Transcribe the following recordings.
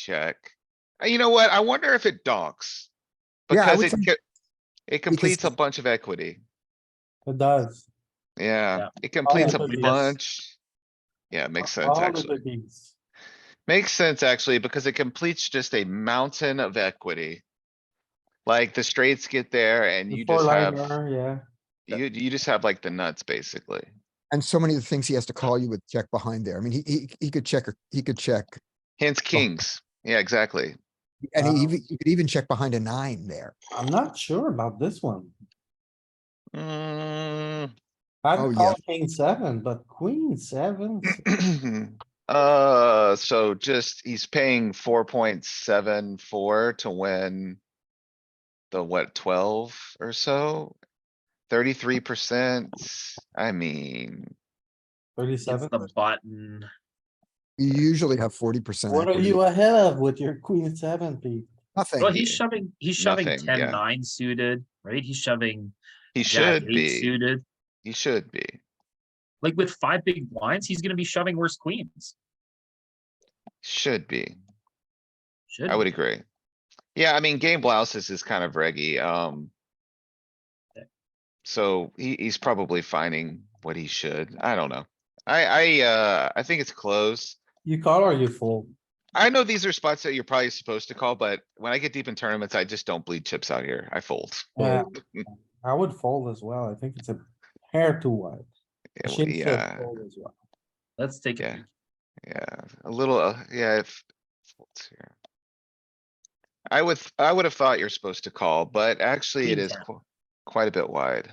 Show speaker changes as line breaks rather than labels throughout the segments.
check. Uh, You know what? I wonder if it donks.
Yeah, I
Because
would
it,
say-
co- it completes a bunch of equity.
It does.
Yeah,
Yeah.
it completes a
the bigs.
bunch. Yeah, it makes sense,
All of
actually.
the bigs.
Makes sense, actually, because it completes just a mountain of equity. Like the straights get there and
The
you just have,
four-liner, Yeah,
you, you just have like the nuts, basically.
And so many of the things he has to call you with check behind there. I mean, he, he, he could check, or he could check.
Oh.
Hence kings. Yeah, exactly.
And he,
Wow.
even- you could even check behind a nine there.
I'm not sure about this one.
Mm,
Oh,
I'd
yeah.
call king seven, but queen seven,
Uh, so just, he's paying four point seven four to win. The what, twelve or so? Thirty-three percent, I mean,
It's
thirty-seven.
the button.
You usually have forty percent.
What are you ahead of with your queen seven, Pete?
Well,
Nothing.
he's shoving, he's shoving
Nothing,
ten
yeah.
nine suited, right? He's shoving
he should
jack eight
be,
suited.
he should be,
Like with five big blinds, he's gonna be shoving worse queens.
should be,
Should,
I would
be.
agree. Yeah, I mean, game blouses is kind of reggy, um. So he, he's probably finding what he should, I don't know. I, I, uh, I think it's close.
You call or you fold?
I know these are spots that you're probably supposed to call, but when I get deep in tournaments, I just don't bleed chips out here. I fold.
Yeah, I would fold as well. I think it's a hair too wide.
Yeah, uh, well,
I shouldn't say
Yeah,
fold as well.
let's take
Yeah.
a peek.
yeah, a little, uh, yeah, if. folds here. I would, I would have thought you're supposed to call, but actually it
Queen
is
jack.
qu- quite a bit wide.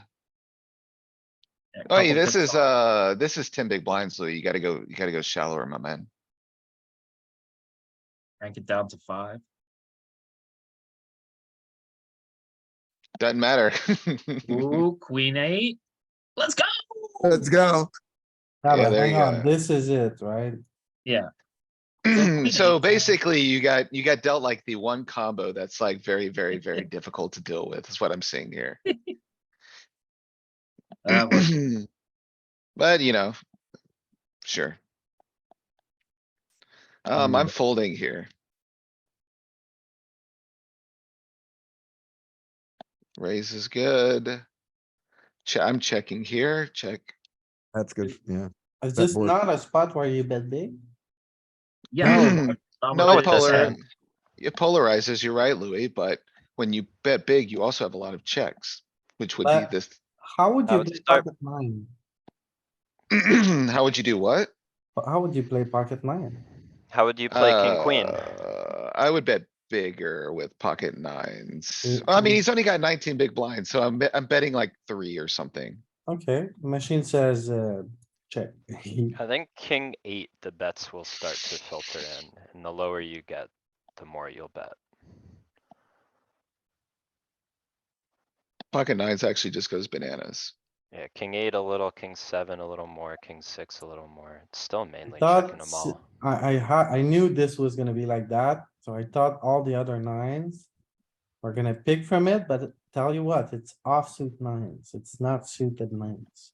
Yeah,
Oh, yeah,
couple
this
good
is,
spots.
uh, this is ten big blinds, Louis. You gotta go, you gotta go shallower, my man.
Crank it down to five.
Doesn't matter.
Ooh, queen eight. Let's go.
Let's go.
Yeah,
Yeah,
but
there
hang
you
on,
go.
this is it, right?
queen
So
eight.
basically you got, you got dealt like the one combo that's like very, very, very difficult to deal with, is what I'm seeing here.
Uh, we're-
But you know, sure. Um, I'm folding here. Raise is good. Che- I'm checking here, check.
That's good. Yeah.
Is
That
this
board-
not a spot where you bet big?
Yeah. oh, not what
No
it does
polar.
have.
It polarizes, you're right, Louis, but when you bet big, you also have a lot of checks, which would be
But-
this.
How would
I
you
would
play
start-
pocket nine?
How would you do what?
How would you play pocket nine?
How would you play king queen?
Uh, I would bet bigger with pocket nines.
Mm,
I mean,
mm.
he's only got nineteen big blinds, so I'm, bet- I'm betting like three or something.
Okay, machine says, uh, check.
I think king eight, the bets will start to filter in, and the lower you get, the more you'll bet.
Pocket nines actually just goes bananas.
Yeah, king eight a little, king seven a little more, king six a little more. It's still mainly checking them
That's,
all.
I, I ha- I knew this was gonna be like that, so I thought all the other nines. We're gonna pick from it, but tell you what, it's offsuit nines, it's not suited nines.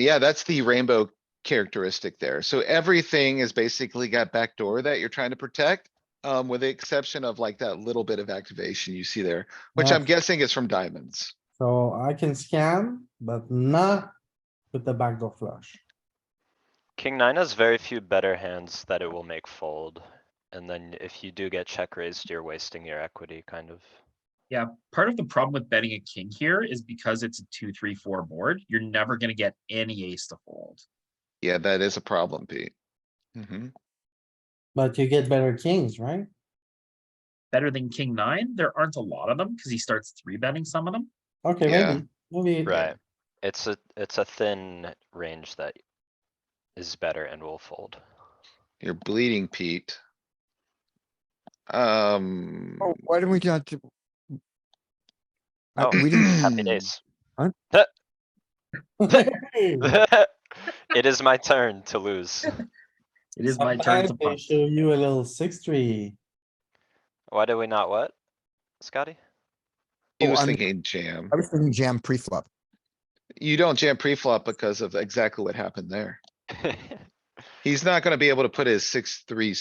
Yeah, that's the rainbow characteristic there. So everything is basically got backdoor that you're trying to protect. Um, with the exception of like that little bit of activation you see there, which I'm
That's-
guessing is from diamonds.
So I can scan, but not with the backdoor flush.
King nine has very few better hands that it will make fold. And then if you do get check raised, you're wasting your equity, kind of.
Part of the problem with betting a king here is because it's a two, three, four board, you're never gonna get any ace to fold.
Yeah, that is a problem, Pete. Mhm.
But you get better kings, right?
Better than king nine, there aren't a lot of them because he starts three betting some of them.
Okay,
Yeah.
maybe, maybe.
Right. It's a, it's a thin range that is better and will fold.
You're bleeding, Pete. Um.
Oh, why didn't we not? do- I-
Oh.
Uh, We didn't,
Happy days. It is my turn to lose.
It is my turn to
Sometimes they
punch.
Show you a little six three.
Why do we not what? Scotty?
He
Oh,
was
I'm-
thinking jam.
I was thinking jam pre-flop.
You don't jam pre-flop because of exactly what happened there. He's not gonna be able to put his six, three